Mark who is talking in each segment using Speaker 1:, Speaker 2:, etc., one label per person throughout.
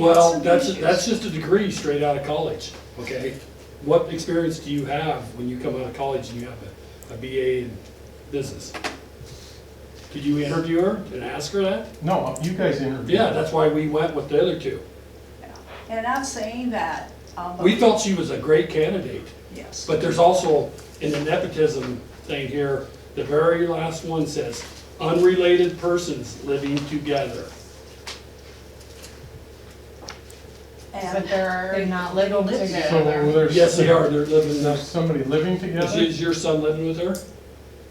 Speaker 1: Well, that's, that's just a degree straight out of college, okay? What experience do you have when you come out of college and you have a, a BA in business? Did you interview her and ask her that?
Speaker 2: No, uh, you guys interviewed.
Speaker 1: Yeah, that's why we went with the other two.
Speaker 3: And I'm saying that, um.
Speaker 1: We felt she was a great candidate,
Speaker 3: Yes.
Speaker 1: but there's also, in the nepotism thing here, the very last one says, unrelated persons living together.
Speaker 4: But
Speaker 3: And,
Speaker 4: they're not living
Speaker 2: So
Speaker 4: together.
Speaker 2: there's.
Speaker 1: Yes, they are, they're living,
Speaker 2: There's
Speaker 1: next-
Speaker 2: somebody living
Speaker 1: is,
Speaker 2: together?
Speaker 1: is your son living with her?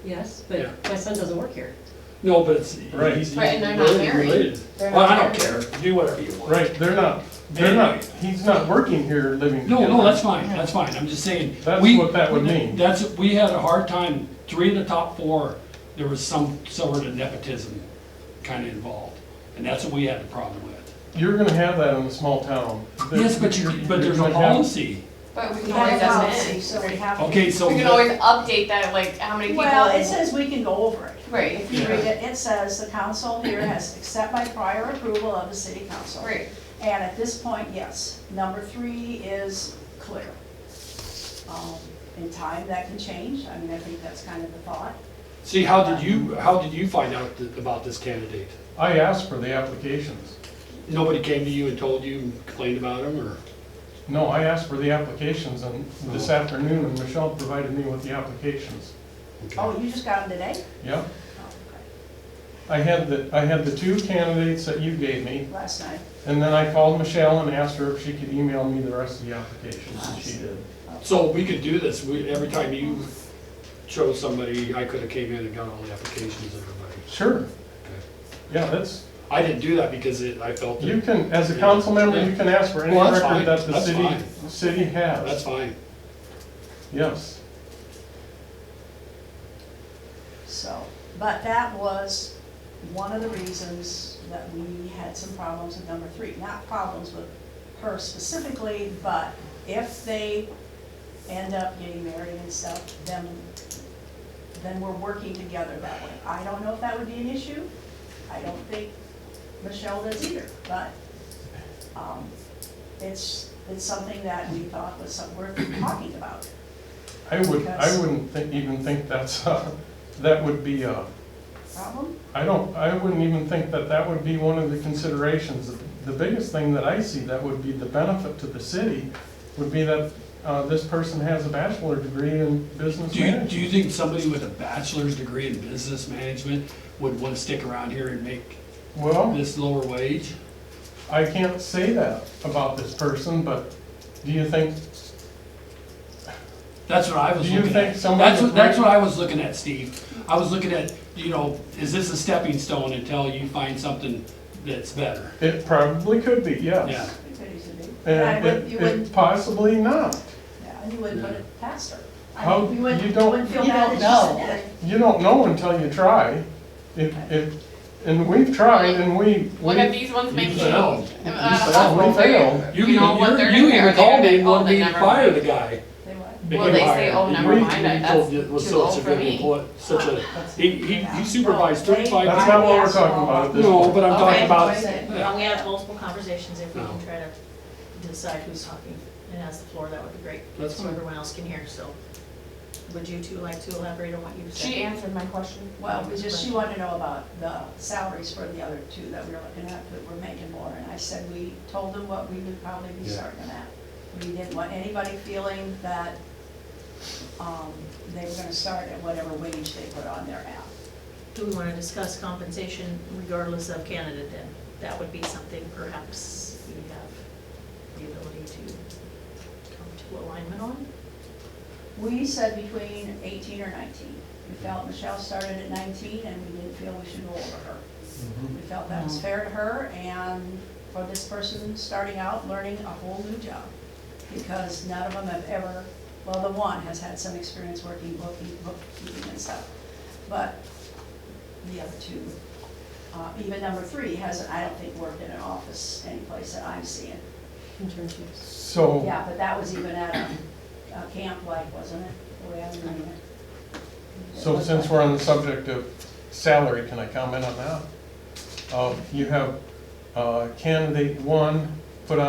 Speaker 5: Yes,
Speaker 1: Yeah.
Speaker 5: but my son doesn't work here.
Speaker 1: No, but it's,
Speaker 2: Right.
Speaker 1: he's, he's
Speaker 4: Right, and they're not
Speaker 1: related,
Speaker 4: married.
Speaker 1: related.
Speaker 4: They're
Speaker 1: Well,
Speaker 4: not
Speaker 1: I don't care,
Speaker 4: married.
Speaker 1: do whatever you want.
Speaker 2: Right, they're not, they're not, he's not working here living
Speaker 1: No,
Speaker 2: together.
Speaker 1: no, that's fine, that's fine, I'm just saying.
Speaker 2: That's
Speaker 1: we-
Speaker 2: what that would mean.
Speaker 1: That's, we had a hard time, three of the top four, there was some sort of nepotism kind of involved. And that's what we had a problem with.
Speaker 2: You're gonna have that in a small town.
Speaker 1: Yes, but you, but there's a
Speaker 2: You're gonna have-
Speaker 1: policy.
Speaker 4: But we
Speaker 3: we
Speaker 4: can
Speaker 3: have
Speaker 4: always
Speaker 3: a policy,
Speaker 4: amend.
Speaker 3: so we have.
Speaker 1: Okay, so.
Speaker 4: We can always update that, like, how many people.
Speaker 3: Well, it says we can go over it.
Speaker 4: Right,
Speaker 3: If you
Speaker 1: Yeah.
Speaker 3: read it, it says the council here has to accept by prior approval of the city council.
Speaker 4: right.
Speaker 3: And at this point, yes, number three is clear. Um, In time, that can change, I mean, I think that's kind of the thought.
Speaker 1: See, how did you, how did you find out th- about this candidate?
Speaker 2: I asked for the applications.
Speaker 1: Nobody came to you and told you and complained about him, or?
Speaker 2: No, I asked for the applications and this
Speaker 1: Oh.
Speaker 2: afternoon and Michelle provided me with the applications.
Speaker 1: Okay.
Speaker 3: Oh, you just got them today?
Speaker 2: Yep.
Speaker 3: Oh, okay.
Speaker 2: I had the, I had the two candidates that you gave me
Speaker 3: Last night,
Speaker 2: and then I called Michelle and asked her if she could email me the rest of the applications and she did.
Speaker 1: So we could do this, we, every time you chose somebody, I could've came in and got all the applications, everybody.
Speaker 2: Sure,
Speaker 1: Okay.
Speaker 2: yeah, that's,
Speaker 1: I didn't do that because it, I felt
Speaker 2: you
Speaker 1: that,
Speaker 2: can, as a council member, you can ask for any
Speaker 1: Well, that's fine.
Speaker 2: record that the
Speaker 1: That's
Speaker 2: city,
Speaker 1: fine.
Speaker 2: city
Speaker 1: that's
Speaker 2: has.
Speaker 1: fine.
Speaker 2: Yes,
Speaker 3: so, but that was one of the reasons that we had some problems with number three. Not problems with her specifically, but if they end up getting married and stuff, then, then we're working together that way. I don't know if that would be an issue, I don't think Michelle does either, but, um, it's, it's something that we thought was some- worth talking about.
Speaker 2: I would, I
Speaker 3: Yes.
Speaker 2: wouldn't think, even think that's, uh, that would be, uh,
Speaker 3: Problem?
Speaker 2: I don't, I wouldn't even think that that would be one of the considerations. The biggest thing that I see that would be the benefit to the city would be that, uh, this person has a bachelor degree in business
Speaker 1: Do you, do
Speaker 2: management.
Speaker 1: you think somebody with a bachelor's degree in business management would wanna stick around here and make
Speaker 2: Well,
Speaker 1: this lower wage?
Speaker 2: I can't say that about this person, but do you think,
Speaker 1: That's what I was
Speaker 2: Do you
Speaker 1: looking
Speaker 2: think
Speaker 1: at.
Speaker 2: somebody
Speaker 1: That's what,
Speaker 2: with
Speaker 1: that's
Speaker 2: great-
Speaker 1: what I was looking at, Steve. I was looking at, you know, is this a stepping stone until you find something that's better?
Speaker 2: it probably could be,
Speaker 1: Yeah.
Speaker 2: yes.
Speaker 3: Yeah, I
Speaker 2: And
Speaker 3: would- you
Speaker 2: it, it
Speaker 3: wouldn't,
Speaker 2: possibly not.
Speaker 3: yeah, you wouldn't put it past her. I
Speaker 2: How-
Speaker 3: mean, you wouldn't,
Speaker 2: you
Speaker 3: you
Speaker 2: don't-
Speaker 3: wouldn't feel
Speaker 4: you
Speaker 3: bad
Speaker 4: don't
Speaker 3: that
Speaker 4: know.
Speaker 3: she said
Speaker 2: You don't know until you try. If, if, and we've tried and we,
Speaker 4: Look at
Speaker 2: we,
Speaker 4: these ones
Speaker 1: You
Speaker 4: making.
Speaker 1: failed.
Speaker 4: Uh,
Speaker 2: failed. We
Speaker 4: what they're-
Speaker 2: failed.
Speaker 1: You,
Speaker 4: you know, what
Speaker 1: you,
Speaker 4: they're
Speaker 1: you
Speaker 4: doing
Speaker 1: even
Speaker 4: there,
Speaker 1: called
Speaker 4: they're
Speaker 1: me and
Speaker 4: like, oh,
Speaker 1: wanted me
Speaker 4: they
Speaker 1: to
Speaker 4: never
Speaker 1: fire
Speaker 4: mind.
Speaker 1: the guy.
Speaker 3: that. They would.
Speaker 1: Make
Speaker 4: Well,
Speaker 1: him
Speaker 4: they say,
Speaker 1: hire.
Speaker 4: oh,
Speaker 1: He
Speaker 4: never
Speaker 1: really
Speaker 4: mind, I-
Speaker 1: told
Speaker 4: that's
Speaker 1: you it was
Speaker 4: too
Speaker 1: such
Speaker 4: old
Speaker 1: a
Speaker 4: for
Speaker 1: good
Speaker 4: me.
Speaker 1: employ- Such a, he, he he supervised
Speaker 2: That's
Speaker 1: thirty-five,
Speaker 2: not what we're talking about at this
Speaker 1: no, but I'm talking
Speaker 4: Okay.
Speaker 1: about,
Speaker 6: Well, we have multiple conversations, if we
Speaker 1: No.
Speaker 6: can try to decide who's talking and has the floor, that would be great.
Speaker 1: That's
Speaker 6: So
Speaker 1: fine.
Speaker 6: everyone else can hear, so would you two like to elaborate on what you said?
Speaker 4: She answered my question.
Speaker 3: Well, we just, she wanted to know about the salaries for the other two that we were looking at, that were making more, and I said we told them what we would probably be
Speaker 1: Yeah.
Speaker 3: starting at. We didn't want anybody feeling that, um, they were gonna start at whatever wage they put on their app.
Speaker 6: Do we want to discuss compensation regardless of candidate then? That would be something perhaps we have the ability to come to alignment on?
Speaker 3: We said between eighteen or nineteen. We felt Michelle started at nineteen and we didn't feel we should go over her. We felt that was fair to her and for this person starting out, learning a whole new job. Because none of them have ever, well, the one has had some experience working booking, bookkeeping and stuff. But the other two, uh, even number three hasn't, I don't think, worked in an office anyplace that I'm seeing.
Speaker 6: Internships.
Speaker 2: so.
Speaker 3: Yeah, but that was even at a, a camp like, wasn't it? The way I remember it.
Speaker 2: So since we're on the subject of Um, salary, can I comment on that? Uh, You have uh, candidate one